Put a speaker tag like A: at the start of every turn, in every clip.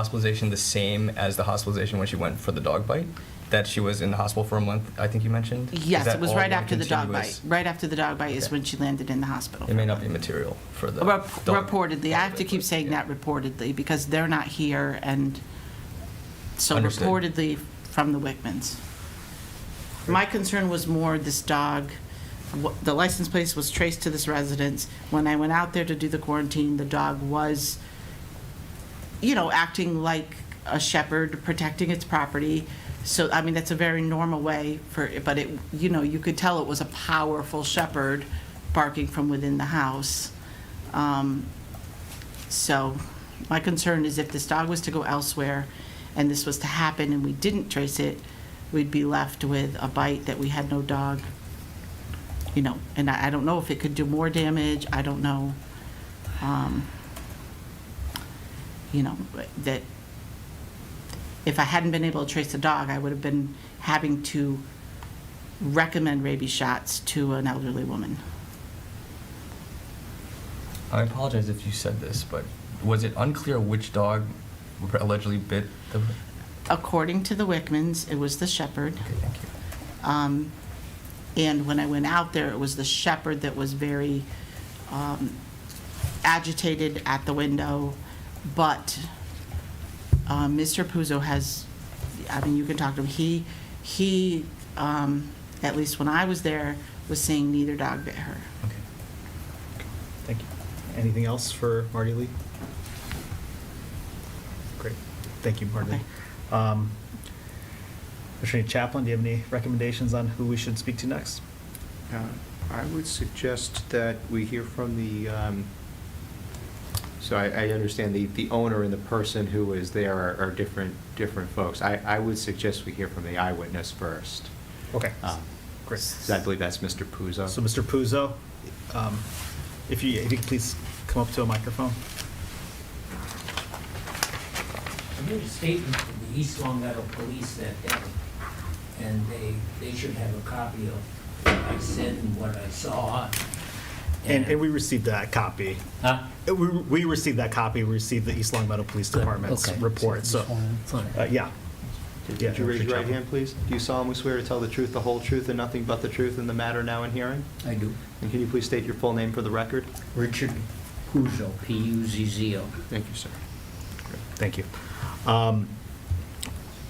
A: hospitalization the same as the hospitalization when she went for the dog bite? That she was in the hospital for a month, I think you mentioned? Is
B: Yes,
A: that
B: it was
A: all
B: right
A: one
B: after the dog bite.
A: continuous-
B: Right after the dog bite is
A: Okay.
B: when she landed in the hospital.
A: It may not be material for the.
B: Rep-
A: dog-
B: Reportedly, I have to keep saying that reportedly, because they're not here, and so
A: Understood.
B: reportedly from the Wickmans. My concern was more this dog, wh- the license plate was traced to this residence. When I went out there to do the quarantine, the dog was, you know, acting like a shepherd, protecting its property. So, I mean, that's a very normal way for, but it, you know, you could tell it was a powerful shepherd barking from within the house. Um, So my concern is if this dog was to go elsewhere and this was to happen and we didn't trace it, we'd be left with a bite that we had no dog, you know, and I I don't know if it could do more damage, I don't know. um, You know, but that, if I hadn't been able to trace the dog, I would have been having to recommend rabies shots to an elderly woman.
A: I apologize if you said this, but was it unclear which dog allegedly bit the? Okay,
B: According to the Wickmans, it was the shepherd.
A: thank you.
B: Um, And when I went out there, it was the shepherd that was very um, agitated at the window. But uh, Mr. Puzo has, I mean, you can talk to him, he, he, um, at least when I was there, was saying neither dog bit her.
A: Okay.
C: Thank you. Anything else for Marty Lee? Great. Thank you, Marty. Lee. Um, Attorney Chaplin, do you have any recommendations on who we should speak to next?
D: Uh, I would suggest that we hear from the, um, so I I understand the the owner and the person who is there are- are different, different folks. I I would suggest we hear from the eyewitness first.
C: Okay.
D: Um,
C: Great.
D: so I believe that's Mr. Puzo.
C: So, Mr. Puzo, um, if you, if you could please come up to a microphone.
E: I made a statement to the East Long Meadow Police that day, and they, they should have a copy of what I said and what I saw.
C: And, and we received that copy.
E: Huh?
C: Uh, We, we received that copy, we received the East Long Meadow Police
E: Good,
C: Department's
E: okay.
C: report, so,
E: Fine.
C: uh, yeah. Yeah,
D: Could you
C: Attorney
D: raise your right
C: Chaplin.
D: hand, please? Do you solemnly swear to tell the truth, the whole truth, and nothing but the truth in the matter now in hearing?
E: I do.
D: And can you please state your full name for the record?
E: Richard Puzo, P-U-Z-Z-O.
D: Thank you, sir.
C: Thank you. Um,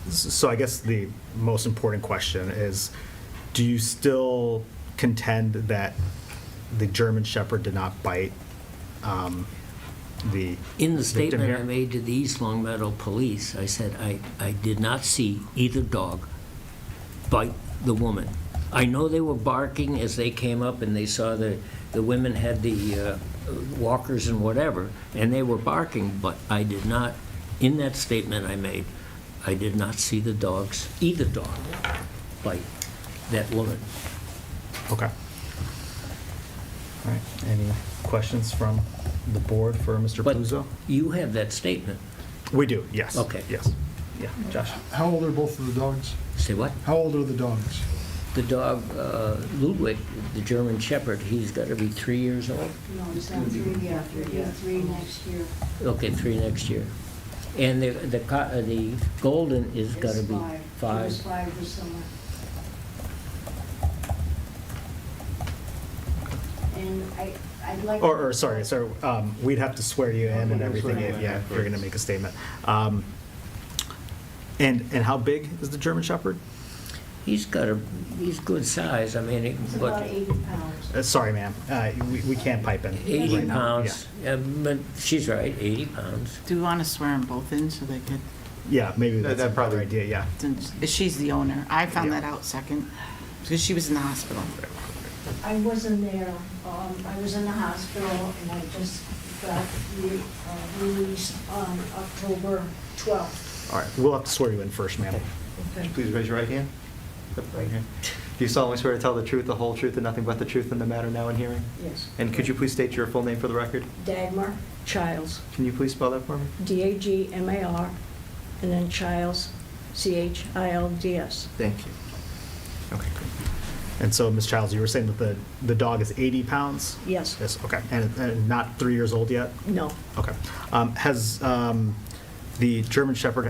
C: s- So I guess the most important question is, do you still contend that the German Shepherd did not bite um, the
E: In the
C: victim
E: statement I
C: here?
E: made to the East Long Meadow Police, I said, I, I did not see either dog bite the woman. I know they were barking as they came up and they saw the, the women had the uh, walkers and whatever, and they were barking, but I did not, in that statement I made, I did not see the dogs, either dog bite that woman.
C: Okay. All right, any questions from the board for Mr.
E: But
C: Puzo?
E: you have that statement.
C: We do, yes.
E: Okay.
C: Yes. Yeah, Josh?
F: How old are both of the dogs?
E: Say what?
F: How old are the dogs?
E: The dog, uh, Ludwig, the German Shepherd, he's got to be three years old?
G: No, it's not three, yeah, three, three next year.
E: Okay, three next year. And the, the, co- uh, the golden is
G: It's
E: gotta be
G: It was
E: five.
G: five this summer. And I, I'd like.
C: Or, or, sorry, sorry, um, we'd have to swear you in and
D: Yeah,
C: everything,
D: swear you in
C: yeah, if you're gonna
D: afterwards.
C: make a statement. Um, And, and how big is the German Shepherd?
E: He's got a, he's good size, I mean,
G: It's
E: it-
G: about
E: but
G: eighty pounds.
C: Uh, Sorry, ma'am, uh, we, we can't pipe in.
E: eighty
C: right now.
E: pounds, Uh, but she's right, eighty pounds.
B: Do you want to swear them both in so they could,
C: Yeah, Yeah, maybe
D: That-
C: that's
D: that
C: a better
D: probably-
C: idea, yeah.
B: since she's the owner? I found
C: Yeah.
B: that out second, because she was in the hospital.
G: I wasn't there, um, I was in the hospital and I just got re- uh, released on October twelfth.
C: All right, we'll have to swear you in first, ma'am.
G: Okay.
D: Please raise your right hand. Yep, right hand. Do you solemnly swear to tell the truth, the whole truth, and nothing but the truth in the matter now in hearing?
G: Yes.
D: And could you please state your full name for the record?
G: Dagmar Childs.
D: Can you please spell that for me?
G: D-A-G-M-A-R, and then Childs, C-H-I-L-D-S.
D: Thank you. Okay, great.
C: And so, Ms. Childs, you were saying that the, the dog is eighty pounds?
G: Yes.
C: Yes, okay, and, and not three years old yet?
G: No.
C: Okay. Um, Has um, The German Shepherd